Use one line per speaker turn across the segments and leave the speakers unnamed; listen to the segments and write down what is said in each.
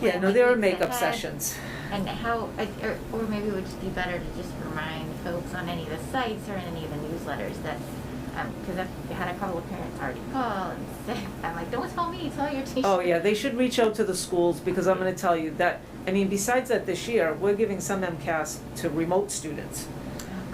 Yeah, no,
like
there are
things
makeup
ahead.
sessions.
And how, I- or, or maybe it would just be better to just remind folks on any of the sites or in any of the newsletters that, um, cause I've had a couple of parents already call and say, I'm like, don't tell me, tell your teacher.
Oh, yeah, they should reach out to the schools, because I'm gonna tell you that, I mean, besides that, this year, we're giving some MCAS to remote students.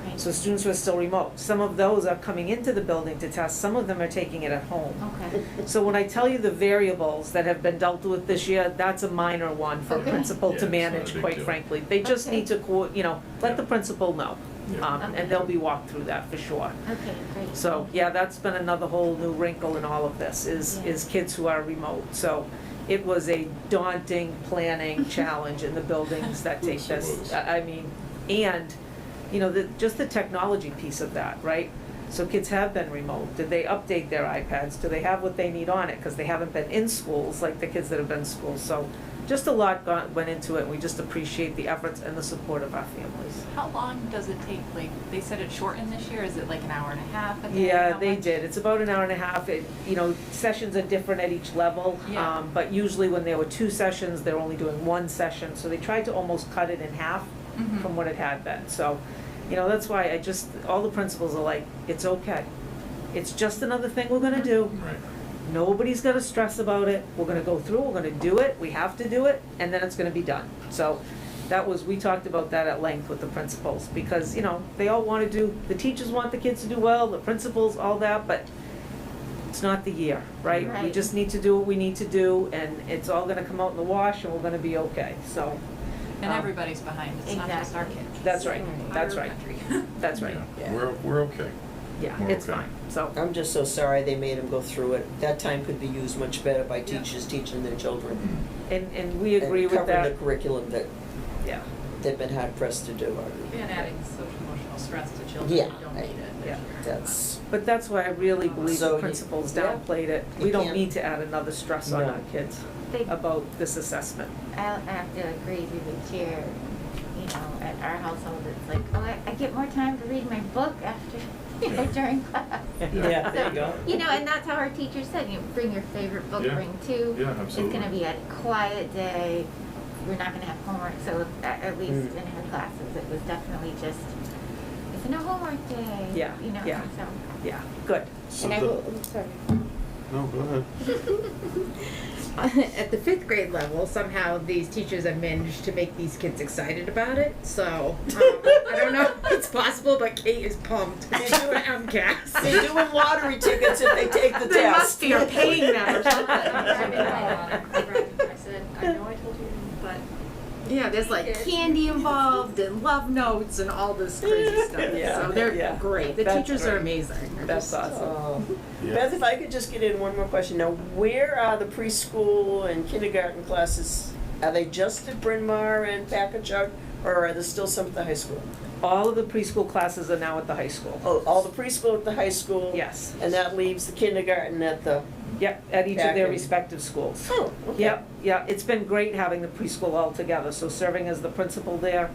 Okay,
So students who are still remote, some of those are coming into the building to test, some of them are taking it at home.
okay,
So when I tell you the variables that have been dealt with this year, that's a minor one for a
Okay.
principal
Yeah,
to
it's not a
manage,
big
quite
deal.
frankly. They just
Okay.
need to, co- you know, let the principal know.
Yeah.
Um,
Okay.
and they'll be walked through that for sure.
okay, great.
So, yeah, that's been another whole new wrinkle in all of this, is,
Yeah.
is kids who are remote. So it was a daunting planning challenge in the buildings that take
Yes,
this.
it was.
I I mean, and, you know, the, just the technology piece of that, right? So kids have been remote. Did they update their iPads? Do they have what they need on it? Because they haven't been in schools, like the kids that have been in schools. So just a lot got, went into it, and we just appreciate the efforts and the support of our families.
How long does it take? Like, they said it shortened this year. Is it like an hour and a half? a day?
Yeah,
How
they
much?
did. It's about an hour and a half. It, you know, sessions are different at each level.
Yeah.
um, But usually when there were two sessions, they're only doing one session. So they tried to almost cut it in half
Mhm.
from what it had been. So, you know, that's why I just, all the principals are like, it's okay. It's just another thing we're gonna do.
Right.
Nobody's gonna stress about it. We're gonna go through, we're gonna do it, we have to do it, and then it's gonna be done. So that was, we talked about that at length with the principals, because, you know, they all wanna do, the teachers want the kids to do well, the principals, all that, but it's not the year, right? We
Right.
just need to do what we need to do, and it's all gonna come out in the wash, and we're gonna be okay, so,
And
Um,
everybody's behind. It's not just our
Exactly.
kids.
That's right.
The
That's
entire
right.
country.
that's right.
Yeah.
Yeah.
We're, we're okay.
Yeah,
We're
it's
okay.
fine, so,
I'm just so sorry they made them go through it. That time could be used much better by
Yeah.
teachers teaching their children.
and, and we agree with
And covering
that,
the curriculum that
yeah.
they've been hard pressed to do.
And adding social emotional stress to children
Yeah,
who don't
I-
need it.
yeah,
That's,
But that's why I really believe
Uh, So
the
you-
principals
yeah.
downplayed it.
You
We don't
can't-
need to add another stress on
No.
our kids
They-
about this assessment.
I I have to agree with the chair, you know, at our household, it's like, oh, I, I get more time to read my book after, you know,
Yeah.
during class.
yeah, there you go.
You know, and that's how our teachers said, you bring your favorite book,
Yeah.
bring two.
Yeah,
It's
absolutely.
gonna be a quiet day, we're not gonna have homework, so at, at least
Mm.
in her classes, it was definitely just, it's no homework day.
Yeah,
You know,
yeah.
so.
Yeah, good.
So
And I
the-
will, I'm sorry.
No, go ahead.
At the fifth grade level, somehow these teachers have managed to make these kids excited about it. So um, I don't know if it's possible, but Kate is pumped. They do an MCAS.
They're doing lottery tickets if they take the test.
They must be are paying them or
I
something.
said, I know I told you, but
Yeah, there's like candy involved and love notes and all this crazy stuff.
Yeah,
so they're
yeah.
great. The
That's
teachers are
great.
amazing. They're
That's
just-
awesome.
Oh.
Yeah.
Beth, if I could just get in one more question. Now, where are the preschool and kindergarten classes? Are they just at Bryn Mawr and Packagug, or are there still some at the high school?
All of the preschool classes are now at the high school.
Oh, all the preschool at the high school?
Yes.
And that leaves the kindergarten at the,
Yep, at each of
Back
their
in-
respective schools.
oh, okay.
Yep, yeah, it's been great having the preschool all together, so serving as the principal there.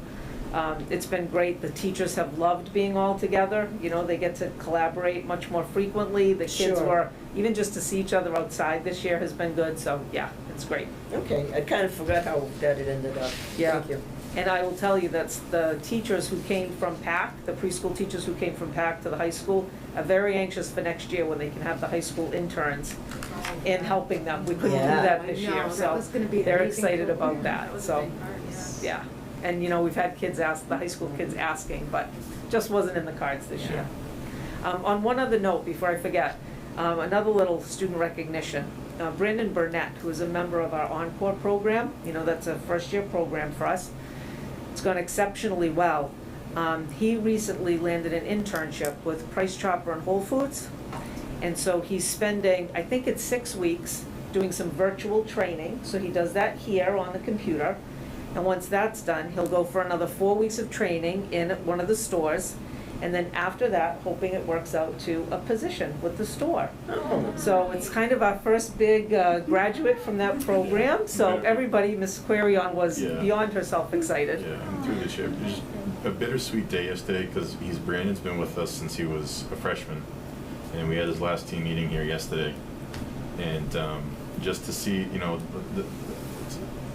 Um, it's been great, the teachers have loved being all together, you know, they get to collaborate much more frequently, the kids
Sure.
were, even just to see each other outside this year has been good, so, yeah, it's great.
Okay, I kind of forgot how that it ended up.
Yeah.
Thank you.
And I will tell you, that's the teachers who came from PAC, the preschool teachers who came from PAC to the high school, are very anxious for next year when they can have the high school interns in helping them, we couldn't do
Yeah.
that this
I know,
year,
that
so
was gonna be an
they're
amazing
excited about
program.
that, so. Yeah, and you know, we've had kids ask, the high school kids asking, but just wasn't in the cards this year. Um, on one other note, before I forget, um, another little student recognition. Uh, Brandon Burnett, who is a member of our Encore program, you know, that's a first-year program for us. It's gone exceptionally well. Um, he recently landed an internship with Price Chopper and Whole Foods. And so he's spending, I think it's six weeks, doing some virtual training. So he does that here on the computer. And once that's done, he'll go for another four weeks of training in one of the stores. And then after that, hoping it works out to a position with the store.
Oh,
So it's kind of our first big uh, graduate from that program. So
Yeah.
everybody, Miss Querion was
Yeah.
beyond herself excited.
Yeah, I'm through this year. There's a bittersweet day yesterday because he's Brandon's been with us since he was a freshman, and we had his last team meeting here yesterday, and um, just to see, you know, the, the,